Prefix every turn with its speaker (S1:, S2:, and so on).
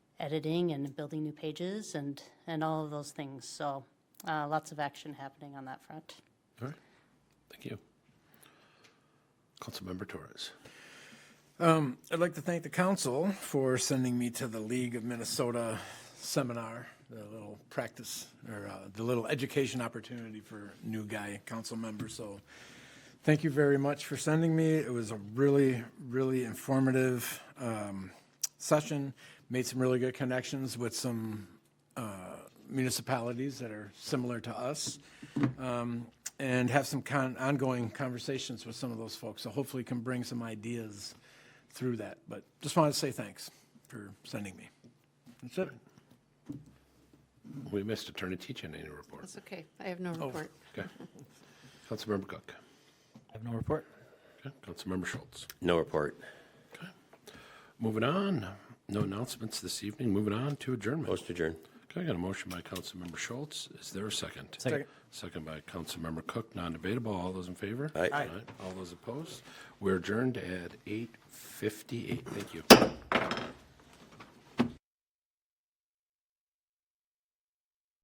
S1: editing and building new pages and, and all of those things. So uh, lots of action happening on that front.
S2: All right, thank you. Councilmember Torres.
S3: I'd like to thank the council for sending me to the League of Minnesota seminar, the little practice, or uh, the little education opportunity for new guy council members. So thank you very much for sending me. It was a really, really informative um, session. Made some really good connections with some uh, municipalities that are similar to us um, and have some con- ongoing conversations with some of those folks. So hopefully can bring some ideas through that. But just wanted to say thanks for sending me. That's it.
S2: We missed Attorney Teachin in your report.
S4: That's okay. I have no report.
S2: Okay. Councilmember Cook.
S5: I have no report.
S2: Okay. Councilmember Schultz.
S6: No report.
S2: Moving on, no announcements this evening. Moving on to adjournment.
S6: Motion to adjourn.
S2: Okay, I got a motion by Councilmember Schultz. Is there a second?
S5: Second.
S2: Second by Councilmember Cook, non-debatable. All those in favor?
S6: Aye.
S2: All those opposed? We're adjourned at 8:58. Thank you.